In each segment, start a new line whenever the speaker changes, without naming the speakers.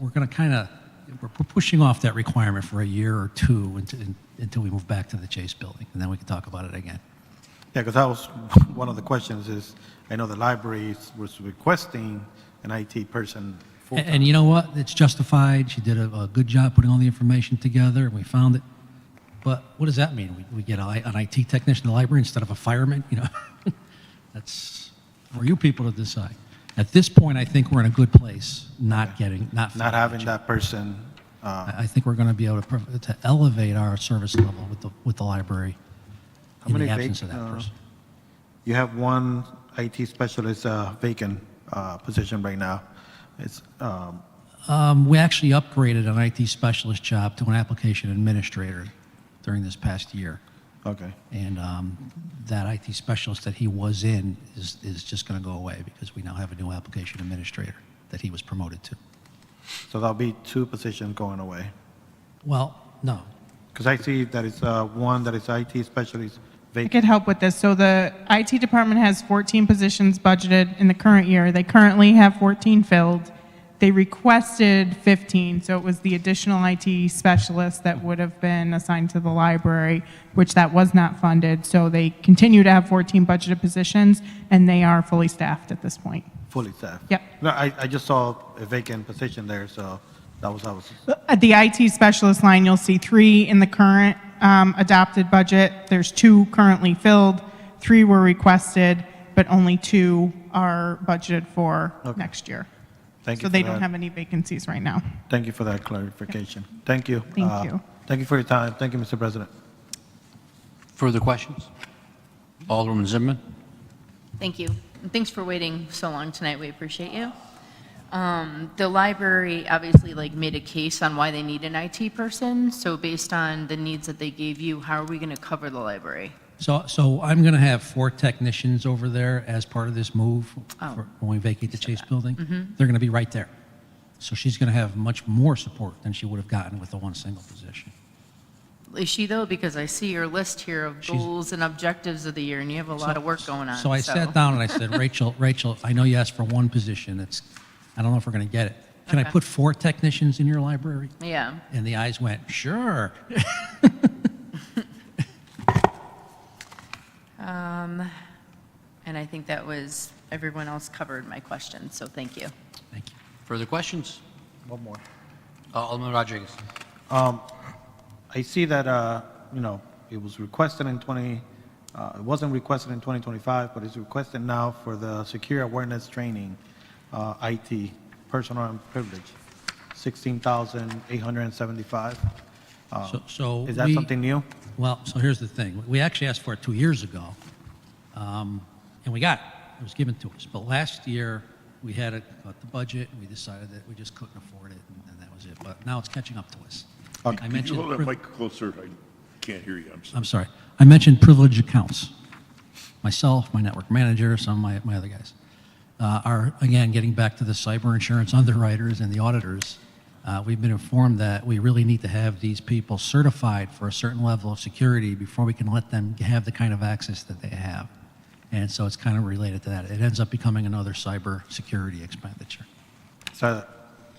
we're going to kind of, we're we're pushing off that requirement for a year or two until, until we move back to the Chase building, and then we can talk about it again.
Yeah, because that was one of the questions is, I know the library was requesting an IT person.
A- And, you know what? It's justified. She did a, a good job putting all the information together, and we found it. But what does that mean? We, we get a, I- an IT technician in the library instead of a fireman? You know, that's for you people to decide. At this point, I think we're in a good place, not getting, not
Not
having.
having that person, uh,
I I think we're going to be able to, prov- to elevate our service level with the, with the library
How
in
many
the absence of
vac-
that
uh,
person.
you have one IT specialist uh, vacant uh, position right now. It's, um,
Um, we actually upgraded an IT specialist job to an application administrator during this past year.
okay,
And um, that IT specialist that he was in is, is just going to go away because we now have a new application administrator that he was promoted to.
so there'll be two positions going away.
Well, no.
Because I see that it's uh, one that is IT specialist
I
vacant.
could help with this. So the IT department has 14 positions budgeted in the current year. They currently have 14 filled. They requested 15, so it was the additional IT specialist that would have been assigned to the library, which that was not funded. So they continue to have 14 budgeted positions, and they are fully staffed at this point.
Fully staffed?
Yep.
No, I, I just saw a vacant position there, so that was, I was,
At the IT specialist line, you'll see three in the current um, adopted budget. There's two currently filled, three were requested, but only two are budgeted for next year.
thank you
So
for
they don't
that.
have any vacancies right now.
Thank you for that clarification. Thank you.
Thank
Uh,
you.
Thank you for your time. Thank you, Mr. President.
Further questions? Alderman Zimmerman?
Thank you. And thanks for waiting so long tonight. We appreciate you. Um, The library obviously like made a case on why they need an IT person. So based on the needs that they gave you, how are we going to cover the library?
So, so I'm going to have four technicians over there as part of this move
Oh.
for- when we vacate the Chase building. They're going to be right there. So she's going to have much more support than she would have gotten with the one single position.
Is she though? Because I see your list here of
She's-
goals and objectives of the year and you have a lot of work going on.
So I sat down and I said, Rachel, Rachel, I know you asked for one position. It's, I don't know if we're going to get it. Can I
Okay.
put four technicians in your library?
Yeah.
And the eyes went, sure.
And I think that was, everyone else covered my question. So thank you.
Thank you.
Further questions?
One more.
Uh, Alderman Rodriguez?
I see that, uh, you know, it was requested in 20, uh, it wasn't requested in 2025, but it's requested now for the secure awareness training, uh, IT, personal and privilege, 16,875. Uh,
So- So.
Is that
we-
something new?
Well, so here's the thing. We actually asked for it two years ago, um, and we got it. It was given to us. But last year, we had it cut the budget, and we decided that we just couldn't afford it, and- and that was it. But now it's catching up to us. I
Could you
mentioned,
hold that
priv-
mic closer? I can't hear you, I'm sorry.
I'm sorry. I mentioned privileged accounts. Myself, my network manager, some of my, my other guys uh, are, again, getting back to the cyber insurance underwriters and the auditors. Uh, we've been informed that we really need to have these people certified for a certain level of security before we can let them have the kind of access that they have. And so it's kind of related to that. It ends up becoming another cyber security expenditure.
So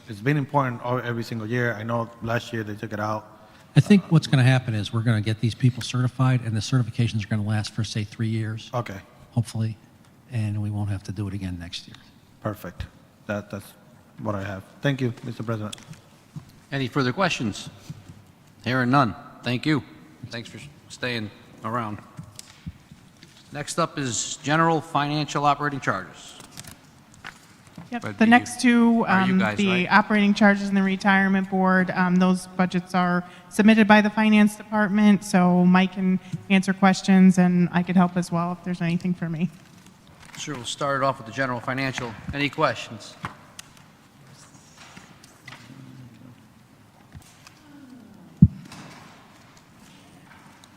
it's been important all- every single year. I know last year they took it out.
I think what's going to happen is we're going to get these people certified, and the certifications are going to last for, say, three years.
Okay,
hopefully, and we won't have to do it again next year.
perfect. That, that's what I have. Thank you, Mr. President.
Any further questions? Hearing none. Thank you. Thanks for staying around. Next up is general financial operating charges.
Yep,
But
the
you-
next two,
are you
um,
guys,
the
right?
operating charges and the retirement board, um, those budgets are submitted by the finance department, so Mike can answer questions, and I could help as well if there's anything for me.
Sure, we'll start it off with the general financial. Any questions?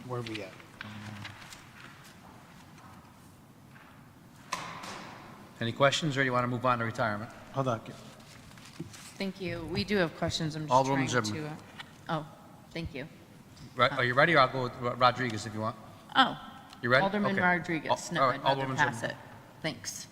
Where are we at?
Any questions, or do you want to move on to retirement?
Hold on.
Thank you. We do have questions. I'm just
Alderwoman
trying to.
Zimmerman.
Oh, thank you.
Right, Are you ready, or I'll go with Ro- Rodriguez if you want?
Oh.
You ready?
Alderman
Okay.
Rodriguez.
Al-
No,
all right,
I'd rather
Alderwoman
pass
Zimmerman.
it. Thanks.